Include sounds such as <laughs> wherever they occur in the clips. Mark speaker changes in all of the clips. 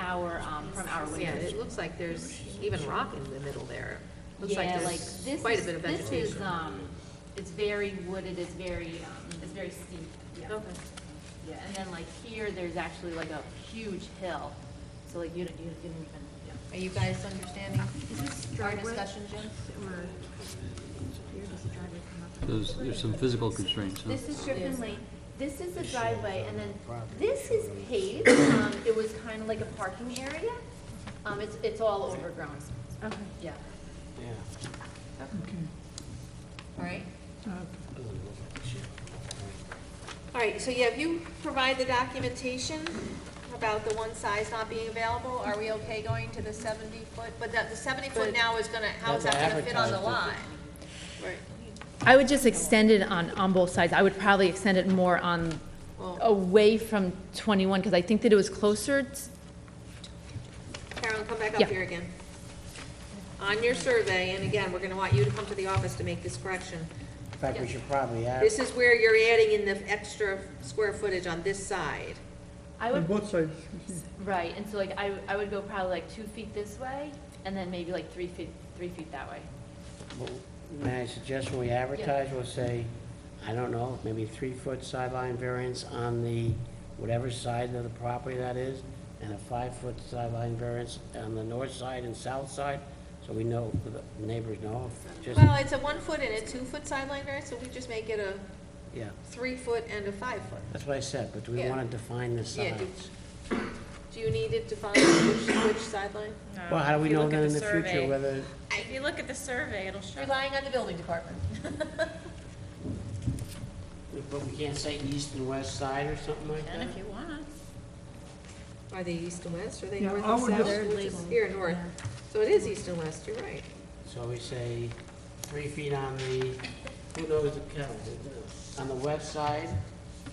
Speaker 1: our, um, from our
Speaker 2: Yeah,
Speaker 1: language.
Speaker 2: it looks like there's even rock in the middle there. Looks like
Speaker 1: Yeah, like
Speaker 2: there's
Speaker 1: this
Speaker 2: quite a
Speaker 1: is,
Speaker 2: bit of
Speaker 1: this
Speaker 2: vegetation.
Speaker 1: is, um, it's very wooded, it's very, um, it's very steep, yeah.
Speaker 2: Okay.
Speaker 1: Yeah, and then like here, there's actually like a huge hill, so like you don't, you didn't even,
Speaker 3: Are you guys understanding
Speaker 4: Is this
Speaker 3: our
Speaker 4: driveway?
Speaker 3: discussion, Jim?
Speaker 4: Or, here does the driveway come up?
Speaker 5: There's, there's some physical constraints, huh?
Speaker 4: This is Griffin Lane, this is the driveway, and then this is paved, um, it was kind of like a parking area.
Speaker 3: Um, it's, it's all overgrown,
Speaker 4: Okay.
Speaker 3: yeah. All right?
Speaker 6: All right, so yeah, if you provide the documentation about the one size not being available, are we okay going to the seventy foot? But that, the seventy foot now is gonna, how is that gonna fit on the line? Right,
Speaker 7: I would just extend it on, on both sides. I would probably extend it more on, away from 21, because I think that it was closer. t-
Speaker 6: Carolyn, come back up
Speaker 7: Yeah.
Speaker 6: here again. On your survey, and again, we're gonna want you to come to the office to make this correction.
Speaker 8: In fact, we should probably add,
Speaker 6: This is where you're adding in the extra square footage on this side.
Speaker 1: I
Speaker 9: On
Speaker 1: would,
Speaker 9: both sides,
Speaker 1: right, and so like I, I would go probably like two feet this way, and then maybe like three feet, three feet that way.
Speaker 8: may I suggest when we advertise, we'll say, I don't know, maybe three-foot sideline variance on the, whatever side of the property that is, and a five-foot sideline variance on the north side and south side, so we know, the neighbors know, just,
Speaker 6: Well, it's a one foot and a two foot sideline variance, so we just make it a
Speaker 8: yeah.
Speaker 6: three foot and a five foot.
Speaker 8: That's what I said, but do we
Speaker 6: Yeah.
Speaker 8: want to define the
Speaker 6: Yeah, do-
Speaker 8: sides?
Speaker 6: Do you need it to find which, which sideline?
Speaker 8: Well, how do we
Speaker 2: if you
Speaker 8: know
Speaker 2: look at
Speaker 8: then in
Speaker 2: the
Speaker 8: the future
Speaker 2: survey-
Speaker 8: whether,
Speaker 4: If you look at the survey, it'll show.
Speaker 3: Relying on the building department.
Speaker 8: but we can't say east and west side or something like that?
Speaker 4: And if you want.
Speaker 6: Are they east and west, or are they
Speaker 9: Yeah,
Speaker 6: north
Speaker 9: I
Speaker 6: and
Speaker 9: would
Speaker 6: south?
Speaker 9: just-
Speaker 6: Which is Here, north. So it is east and west, you're right.
Speaker 8: So we say three feet on the, who knows the count, the- on the west side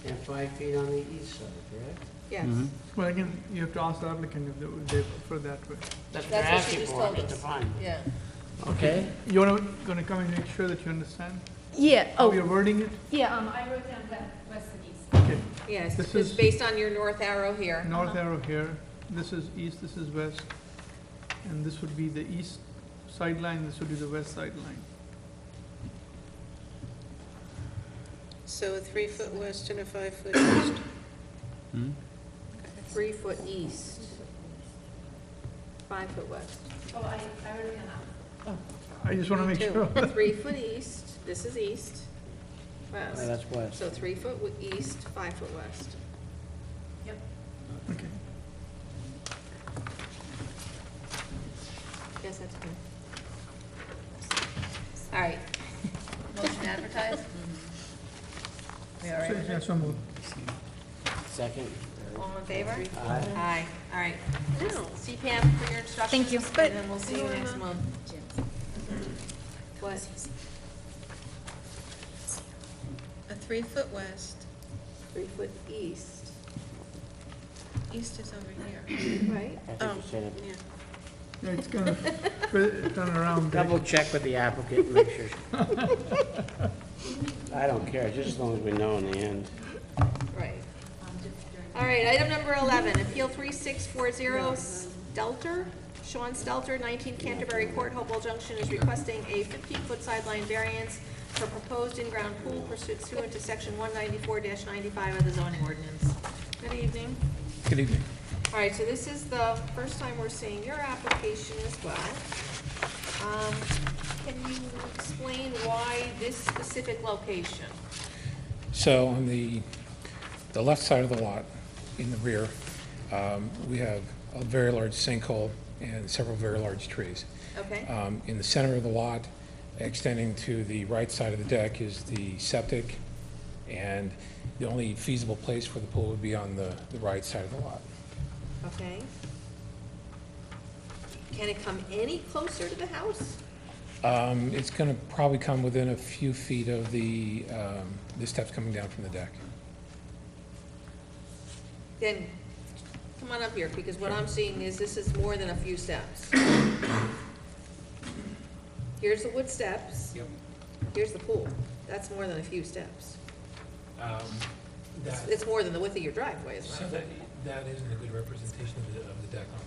Speaker 8: and five feet on the east side, correct?
Speaker 6: Yes.
Speaker 9: well, again, you have to ask the applicant if they, they prefer that way.
Speaker 8: That's
Speaker 3: That's
Speaker 8: what they're
Speaker 3: what she
Speaker 8: asking
Speaker 3: just
Speaker 8: for,
Speaker 3: told
Speaker 8: it's
Speaker 3: us.
Speaker 8: defined.
Speaker 3: Yeah.
Speaker 8: Okay,
Speaker 9: You're not gonna come and make sure that you understand
Speaker 7: Yeah,
Speaker 9: how you're
Speaker 7: oh,
Speaker 9: wording it?
Speaker 7: yeah,
Speaker 1: Um, I wrote down west and east.
Speaker 9: Okay,
Speaker 6: Yes,
Speaker 9: This
Speaker 6: because
Speaker 9: is-
Speaker 6: based on your north arrow here.
Speaker 9: north arrow here, this is east, this is west, and this would be the east sideline, this would be the west sideline.
Speaker 6: So a three foot west and a five foot east.
Speaker 5: Hmm?
Speaker 6: Three foot east. Five foot west.
Speaker 1: Oh, I, I wrote it down.
Speaker 9: I just wanna make
Speaker 6: Two.
Speaker 9: <laughs> sure.
Speaker 6: Three foot east, this is east,
Speaker 8: Well,
Speaker 6: west.
Speaker 8: that's west.
Speaker 6: So three foot w- east, five foot west.
Speaker 9: Okay.
Speaker 6: Yes, that's good. All right,
Speaker 3: Motion advertised? We all
Speaker 9: So,
Speaker 3: right?
Speaker 9: yeah, so moved.
Speaker 8: second.
Speaker 6: all in favor?
Speaker 8: Aye.
Speaker 6: Aye, all right. See Pam for your instructions.
Speaker 7: Thank you.
Speaker 6: And then we'll see you next month. What?
Speaker 4: A three foot west,
Speaker 6: Three foot east,
Speaker 4: east is over here.
Speaker 6: right?
Speaker 8: I think you said it.
Speaker 9: Yeah, it's gonna <laughs> turn around. back.
Speaker 8: Double check with the applicant, and make sure. <laughs> I don't care, just as long as we know in the end.
Speaker 6: Right. All right, item number 11, Appeal 3640 Stelter. Sean Stelter, 19 Canterbury Court, Hopewell Junction, is requesting a 15-foot sideline variance for proposed in-ground pool pursuant to Section 194-95 of the zoning ordinance. Good evening.
Speaker 10: Good evening.
Speaker 6: All right, so this is the first time we're seeing your application as well. Um, Can you explain why this specific location?
Speaker 10: So on the, the left side of the lot, in the rear, um, we have a very large sinkhole and several very large trees.
Speaker 6: Okay?
Speaker 10: Um, In the center of the lot, extending to the right side of the deck is the septic, and the only feasible place for the pool would be on the, the right side of the lot.
Speaker 6: Okay. Can it come any closer to the house?
Speaker 10: Um, It's going to probably come within a few feet of the, um, the steps coming down from the deck.
Speaker 6: Then, come on up here, because what I'm seeing is this is more than a few steps. Here's the wood steps.
Speaker 10: Yep.
Speaker 6: Here's the pool. That's more than a few steps. It's more than the width of your driveway, is what I'm
Speaker 10: that isn't a good representation of the, of the deck